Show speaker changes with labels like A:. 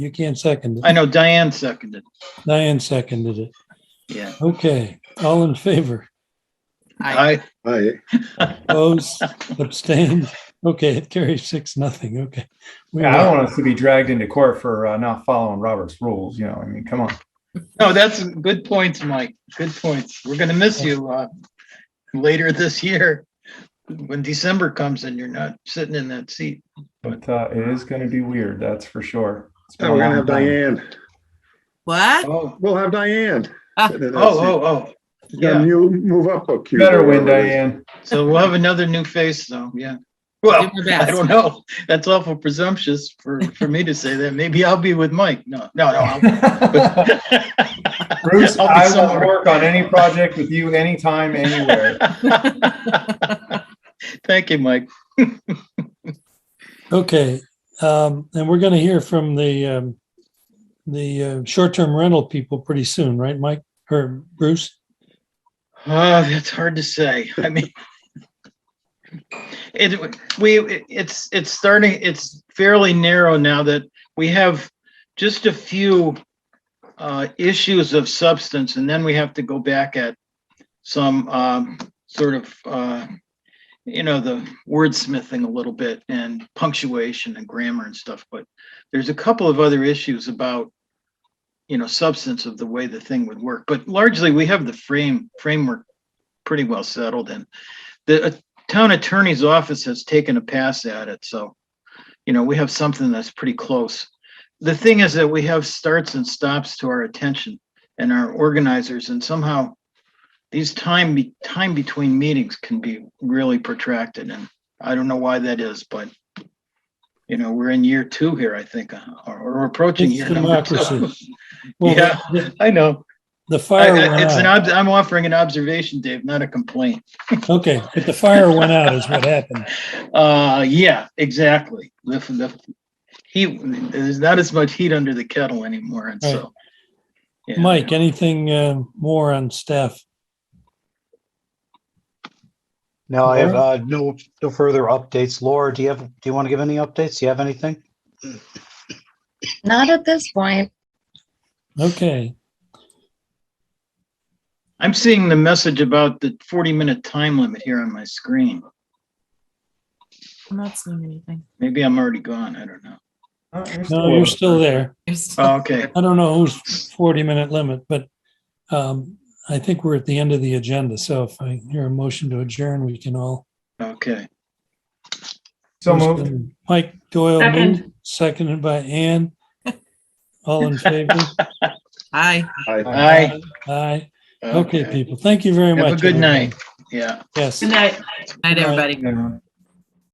A: You can't second
B: I
A: it.
B: know Diane seconded.
A: Diane seconded it.
B: Yeah.
A: Okay, all in favor?
B: I,
C: Aye.
A: Opposed, abstained? Okay, it carries six, nothing. Okay. We
D: Yeah, I don't
A: are-
D: want us to be dragged into court for uh, not following Robert's rules. You know, I mean, come on.
B: no, that's good points, Mike. Good points. We're gonna miss you, uh, later this year. When December comes and you're not sitting in that seat.
D: But uh, it is going to be weird, that's for sure. It's been
C: Oh,
D: a
C: we're gonna
D: long
C: have
D: time.
C: Diane.
E: What?
B: Oh,
C: We'll have Diane.
E: Ah.
B: oh, oh, oh. Yeah,
C: You move up a
D: You
C: cue.
D: Better win, Diane.
B: so we'll have another new face though, yeah. Well,
E: Do my
B: I
E: best.
B: don't know. That's awful presumptuous for, for me to say that. Maybe I'll be with Mike. No, no, no. I'll-
D: Bruce,
B: I'll be
D: I will
B: somewhere.
D: work on any project with you anytime, anywhere.
B: Thank you, Mike.
A: Okay, um, and we're going to hear from the, um, the uh, short-term rental people pretty soon, right, Mike or Bruce?
B: Oh, that's hard to say. I mean, it, we, it's, it's starting, it's fairly narrow now that we have just a few uh, issues of substance, and then we have to go back at some um, sort of, uh, you know, the wordsmithing a little bit and punctuation and grammar and stuff, but there's a couple of other issues about you know, substance of the way the thing would work, but largely we have the frame, framework pretty well settled and the uh, town attorney's office has taken a pass at it, so, you know, we have something that's pretty close. The thing is that we have starts and stops to our attention and our organizers and somehow these time, be- time between meetings can be really protracted and I don't know why that is, but you know, we're in year two here, I think, uh, or or approaching year
A: It's
B: number two.
A: democracy. Well,
B: Yeah.
A: the-
B: I know.
A: The
B: I-
A: fire
B: I- It's an,
A: went out.
B: ob- I'm offering an observation, Dave, not a complaint.
A: Okay, but the fire went out is what happened.
B: Uh, yeah, exactly. The, the heat, there's not as much heat under the kettle anymore, and so. yeah.
A: Mike, anything uh, more on staff?
F: No, I have
A: Laura?
F: uh, no, no further updates. Laura, do you have, do you want to give any updates? Do you have anything?
G: Not at this point.
A: Okay,
B: I'm seeing the message about the 40-minute time limit here on my screen.
E: I'm not seeing anything.
B: Maybe I'm already gone, I don't know.
D: Oh, you're
A: no,
D: still-
A: you're still there.
E: There's-
B: Oh, Okay,
A: I don't know whose forty minute limit, but um, I think we're at the end of the agenda. So if I hear a motion to adjourn, we can all.
B: okay.
D: So moved.
A: Mike Doyle
H: Second.
A: moved, seconded by Ann. All in favor?
E: Hi.
C: Aye.
B: Aye.
A: Aye. Uh, Okay, people. Thank you very
B: Have
A: much.
B: a good
A: everybody.
B: night. Yeah.
A: Yes.
H: Good night.
E: Night,
A: Night.
E: everybody.
D: Everyone.